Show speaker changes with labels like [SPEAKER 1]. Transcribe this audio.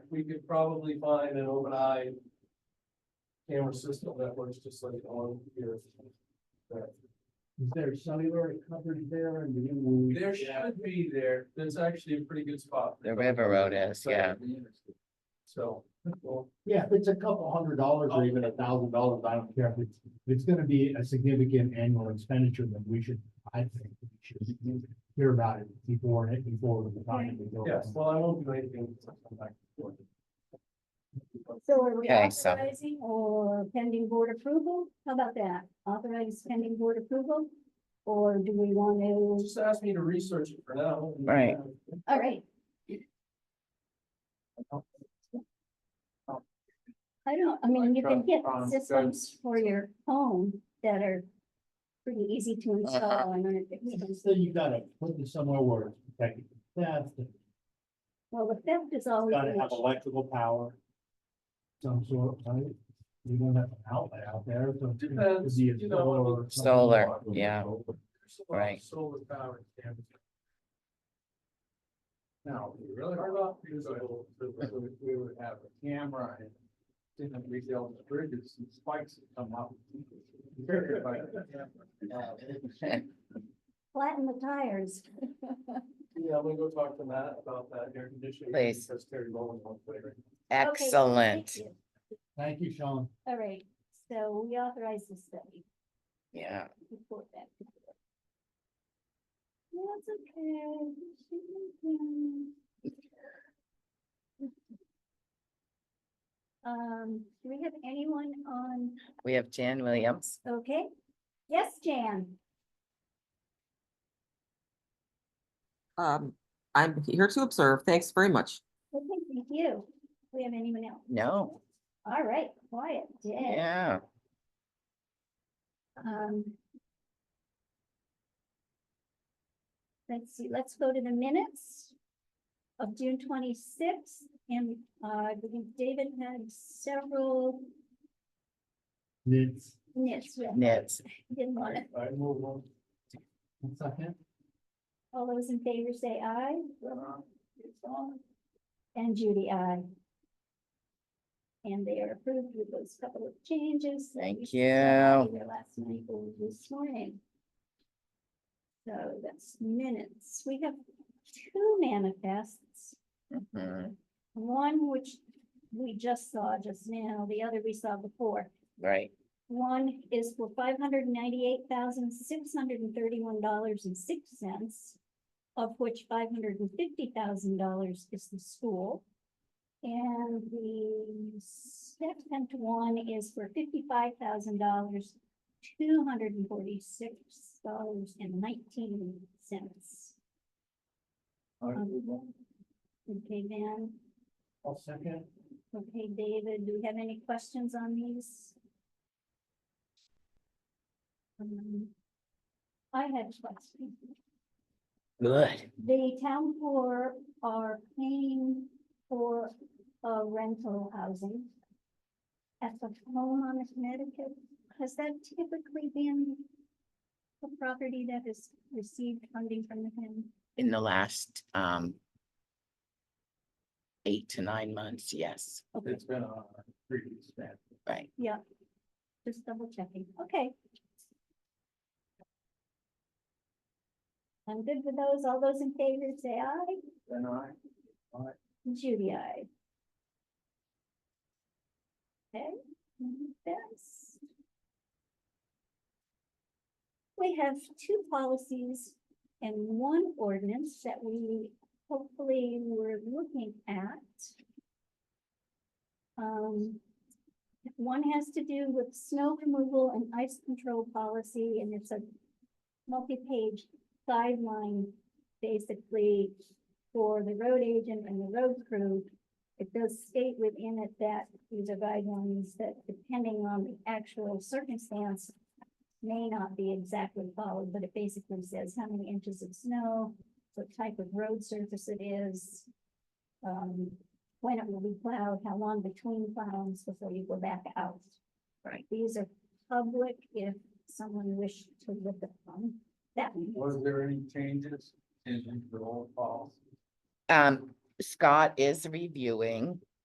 [SPEAKER 1] we could probably find an open eye camera system that works just like on here. That-
[SPEAKER 2] Is there cellular coverage there and you will?
[SPEAKER 1] There should be there, there's actually a pretty good spot.
[SPEAKER 3] The river road is, yeah.
[SPEAKER 1] So, well,
[SPEAKER 2] Yeah, if it's a couple hundred dollars or even a thousand dollars, I don't care. If It's, it's gonna be a significant annual expenditure that we should, I think, we should hear about it before, it before the time. we go.
[SPEAKER 1] yes, well, I won't do anything. until I come back to work.
[SPEAKER 4] So are we
[SPEAKER 3] Okay, so-
[SPEAKER 4] authorizing or pending board approval? How about that? Authorize pending board approval? Or do we want to,
[SPEAKER 1] Just ask me to research it for now. and-
[SPEAKER 3] Right.
[SPEAKER 4] all right. I don't, I mean, you can
[SPEAKER 2] uh,
[SPEAKER 4] get
[SPEAKER 2] um,
[SPEAKER 4] systems for your home that are pretty easy
[SPEAKER 3] Uh-huh.
[SPEAKER 4] to install. I mean, if you can-
[SPEAKER 2] So you gotta put this somewhere where it's protected from theft, it's
[SPEAKER 4] Well, the theft is always.
[SPEAKER 2] gotta
[SPEAKER 4] an
[SPEAKER 2] have
[SPEAKER 4] issue.
[SPEAKER 2] electrical power. Some sort, right? You don't have an outlet out there, so. it could
[SPEAKER 1] Depends,
[SPEAKER 2] be a
[SPEAKER 1] you know,
[SPEAKER 2] solar or something.
[SPEAKER 3] Solar, yeah.
[SPEAKER 1] There's a lot of
[SPEAKER 3] Right.
[SPEAKER 1] Solar power. cameras. Now, we really hard off, because I will- because we- we would have a camera and didn't rebuild the bridges and spikes that come up.
[SPEAKER 4] Flatten the tires.
[SPEAKER 1] Yeah, I'm gonna go talk to Matt about that air conditioning.
[SPEAKER 3] Please.
[SPEAKER 1] Because they're low in one way right now.
[SPEAKER 3] Excellent.
[SPEAKER 4] Thank you.
[SPEAKER 2] Thank you, Sean.
[SPEAKER 4] All right, so we authorize the study.
[SPEAKER 3] Yeah,
[SPEAKER 4] report back to the board. That's okay. she can- Um, do we have anyone on,
[SPEAKER 3] we have Jan Williams.
[SPEAKER 4] okay? Yes, Jan,
[SPEAKER 5] Um, I'm here to observe. Thanks very much.
[SPEAKER 4] okay, thank you. Do We have anyone else?
[SPEAKER 3] No,
[SPEAKER 4] All right, quiet, dead.
[SPEAKER 3] yeah,
[SPEAKER 4] Um. Let's see, let's go to the minutes of June twenty-sixth, and uh, I believe David had several
[SPEAKER 2] It's,
[SPEAKER 4] nits. with-
[SPEAKER 3] Nits.
[SPEAKER 4] Didn't want it.
[SPEAKER 1] I move on.
[SPEAKER 2] one second.
[SPEAKER 4] All those in favor say aye. And Judy, aye. And they are approved with those couple of changes. that
[SPEAKER 3] Thank
[SPEAKER 4] saw
[SPEAKER 3] you.
[SPEAKER 4] Either last night or this morning. So that's minutes. We have two manifests.
[SPEAKER 3] Mhm,
[SPEAKER 4] One which we just saw just now, the other we saw before.
[SPEAKER 3] right.
[SPEAKER 4] One is for five hundred ninety-eight thousand, six hundred and thirty-one dollars and six cents, of which five hundred and fifty thousand dollars is the school. And the second one is for fifty-five thousand dollars, two hundred and forty-six dollars and nineteen cents. Okay, Van,
[SPEAKER 2] One second.
[SPEAKER 4] okay, David, do we have any questions on these? Um, I had a question.
[SPEAKER 3] Good.
[SPEAKER 4] The town poor are paying for uh, rental housing at the homeowner Connecticut. Has that typically been a property that has received funding from the town?
[SPEAKER 3] In the last, um, eight to nine months, yes,
[SPEAKER 4] Okay,
[SPEAKER 1] It's been on our previous map.
[SPEAKER 3] right.
[SPEAKER 4] yeah. Just double checking. Okay. I'm good with those. All those in favor say aye.
[SPEAKER 1] Then I,
[SPEAKER 4] Judy, I. Okay, manifest. We have two policies and one ordinance that we hopefully were looking at. Um, one has to do with snow removal and ice control policy, and it's a multi-page guideline, basically, for the road agent and the road crew, it does state within it that these are guidelines that depending on the actual circumstance may not be exactly followed, but it basically says how many inches of snow, what type of road surface it is, um, when it will be plowed, how long between plows before you go back out.
[SPEAKER 3] Right.
[SPEAKER 4] These are public if someone wished to look at them. That one.
[SPEAKER 1] was there any changes in the old policy?
[SPEAKER 3] Um, Scott is reviewing